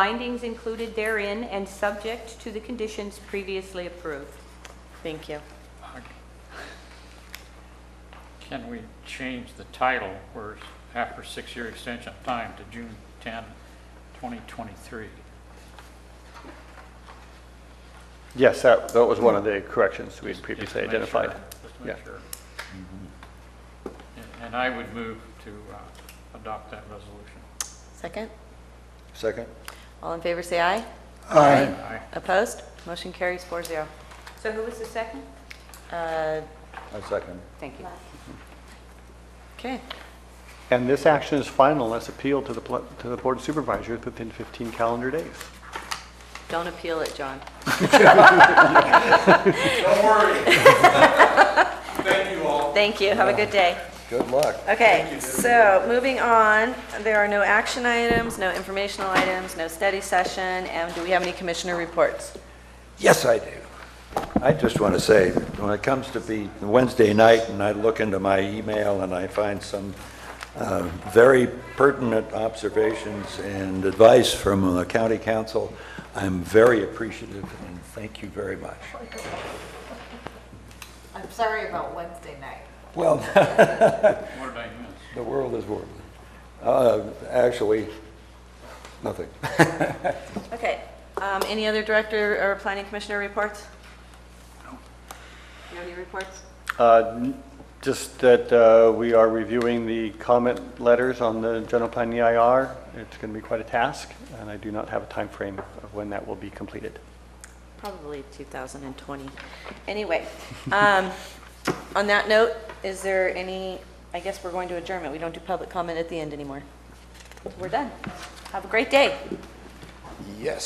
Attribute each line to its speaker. Speaker 1: findings included therein and subject to the conditions previously approved.
Speaker 2: Thank you.
Speaker 3: Can we change the title where it's after six-year extension of time to June 10, 2023?
Speaker 4: Yes, that, that was one of the corrections we had
Speaker 3: Just
Speaker 4: previously
Speaker 3: to make sure-
Speaker 4: identified.
Speaker 3: Just to make
Speaker 4: Yeah.
Speaker 3: sure. And- And I would move to uh, adopt that resolution.
Speaker 2: Second?
Speaker 5: Second?
Speaker 2: All in favor, say aye.
Speaker 5: Aye.
Speaker 3: Aye.
Speaker 2: Opposed? Motion carries four zero.
Speaker 1: So who was the second?
Speaker 2: Uh,
Speaker 5: I second.
Speaker 1: Thank you.
Speaker 2: Okay,
Speaker 4: And this action is final unless appealed to the, pl- to the Board of Supervisors within 15 calendar days.
Speaker 2: don't appeal it, John.
Speaker 6: Don't worry. Thank you all.
Speaker 2: Thank you, have a good day.
Speaker 5: Good luck.
Speaker 2: Okay, so moving on, there are no action items, no informational items, no study session, and do we have any commissioner reports?
Speaker 5: Yes, I do. I just want to say, when it comes to be Wednesday night and I look into my email and I find some uh, very pertinent observations and advice from the county council, I'm very appreciative and thank you very much.
Speaker 7: I'm sorry about Wednesday night.
Speaker 5: Well,
Speaker 3: What did I miss?
Speaker 5: the world is world. Uh, Actually, nothing.
Speaker 2: Okay, um, any other director or planning commissioner reports? No. No new reports?
Speaker 4: Uh, n- Just that uh, we are reviewing the comment letters on the general plan EIR. It's going to be quite a task, and I do not have a time frame of when that will be completed.
Speaker 2: Probably 2020. Anyway, um, on that note, is there any, I guess we're going to adjournment. We don't do public comment at the end anymore. We're done. Have a great day.
Speaker 5: Yes.